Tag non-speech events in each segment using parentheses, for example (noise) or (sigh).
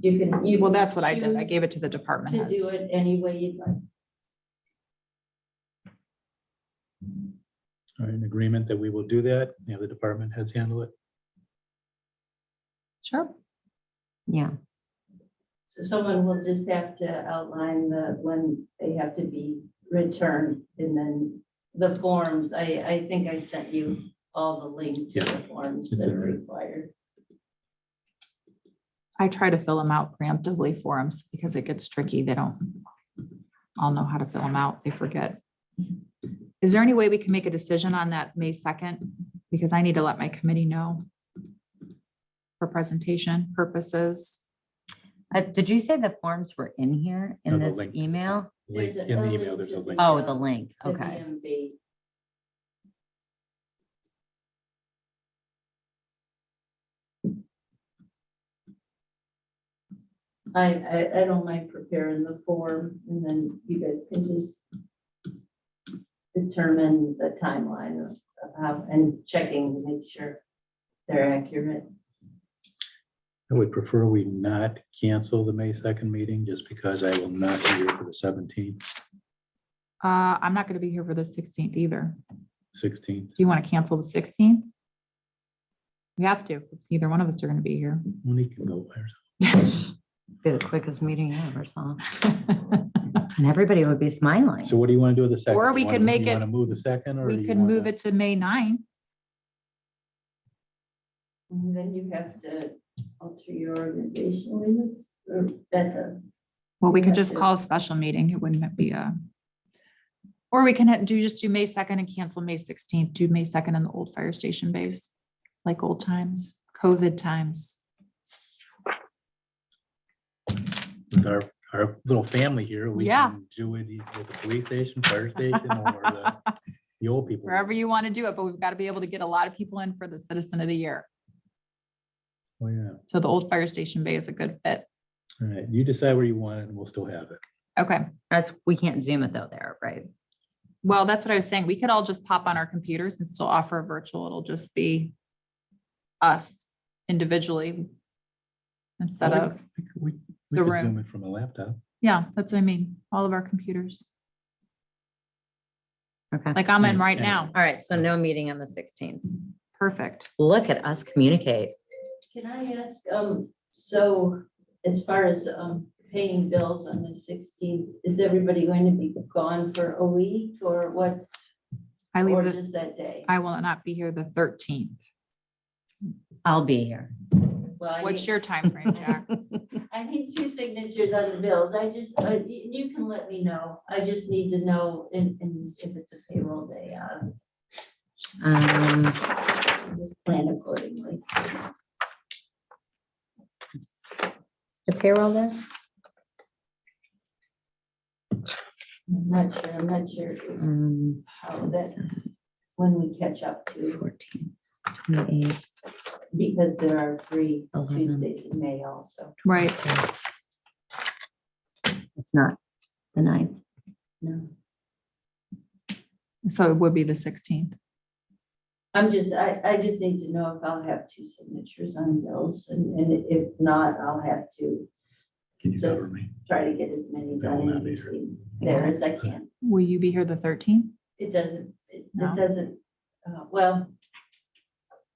you can. you Well, that's what I did. I choose gave it to the department To do heads. it any way you'd like. Are in uh, agreement that we will do that, you know, the department has handled it. Sure. Yeah, So someone will just have to outline the, when they have to be returned and then the forms. I, I think I sent you all the link to the forms It's that are in there. required. I try to fill them out preemptively for them because it gets tricky. They don't all know how to fill them out. They forget. Is there any way we can make a decision on that May second? Because I need to let my committee know for presentation purposes. Uh, did you say the forms were in here in No, the this link. email? Link- There's a- In a the email, link there's to a link. Oh, the link, The okay. VMB. I, I, I don't mind preparing the form and then you guys can just determine the timeline of, of how, and checking, to make sure they're accurate. I would prefer we not cancel the May second meeting just because I will not be here for the seventeenth, Uh, I'm not gonna be here for the sixteenth either. sixteenth. Do you want to cancel the sixteenth? We have to. Either one of us are gonna be here. (laughs) Monique can go there. Be the quickest meeting I ever (laughs) saw. And everybody would be smiling. So what do you want to do with the second? Or we could make Want to move the second or? do We you could move wanna- it to May 9. And then you have to alter your organizational limits, or that's a, Well, We we could have just to- call a special meeting. It wouldn't be a. Or we can ha- do, just do May second and cancel May sixteenth, do May second in the old fire station base, like old times, COVID times. With our, our little family here. we Yeah. can Do it either at the police station, fire station, or the, (laughs) the old people. Wherever you want to do it, but we've got to be able to get a lot of people in for the citizen of the year. Oh, yeah. So the old fire station bay is a good fit. All right, you decide where you want it and we'll still have it. Okay. That's, we can't zoom it though there, right? Well, that's what I was saying. We could all just pop on our computers and still offer a virtual. It'll just be us individually instead Well, of, we- we could- we the could Zoom room. it From a laptop. yeah, that's what I mean. All of our computers, Okay. like I'm in Mm, right yeah. now. All right, so no meeting on the sixteenth. Perfect. Look at us communicate. can I ask, um, so as far as, um, paying bills on the sixteenth, is everybody going to be gone for a week or what? I leave, Or the- just that day? I will not be here the thirteenth. I'll be here. Well, I What's need, your time frame, Jack? I need two signatures on the bills. I just, uh, you, you can let me know. I just need to know and, and if it's a payroll day, uh, Um, just plan accordingly. the payroll there? I'm not sure, I'm not sure Um, how that, when we catch up to. 14, 28. Because there are three Eleven. Tuesdays in May also. Right. It's not the ninth. No, So it would be the sixteenth. I'm just, I, I just need to know if I'll have two signatures on bills and, and if not, I'll have to Can you cover Yes. me? try to get as many That will done in not be true. between there as I can. Will you be here the thirteenth? It doesn't, it No. it doesn't, uh, well,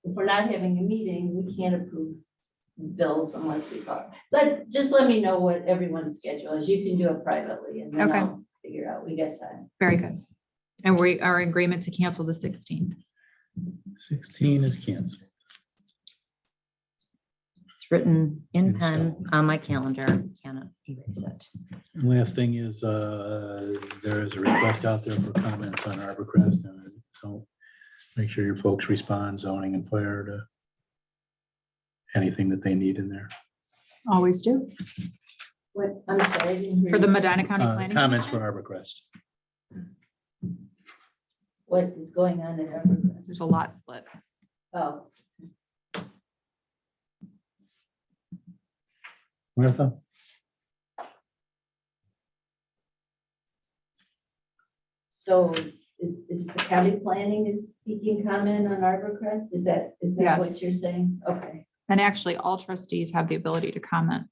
if we're not having a meeting, we can't approve bills unless we talk. But just let me know what everyone's schedule is. You can do it privately and then Okay. I'll figure out. We got time. Very good. And we are in agreement to cancel the sixteenth. Sixteen is canceled. It's written in In pen stone. on my calendar. Cannot erase it. And Last thing is, uh, there is a request out there for comments on Arborcrest. and So make sure your folks respond zoning and fire to anything that they need in there. Always do. What, I'm sorry. I didn't hear For the you. Medina County Uh, Planning. Comments for Commission, Arborcrest. what is going on at Evergreen. There's a lot split. Oh, Martha? so is, is the county planning is seeking comment on Arborcrest? Is that, is that what Yes. you're saying? Okay, And actually, all trustees have the ability to comment.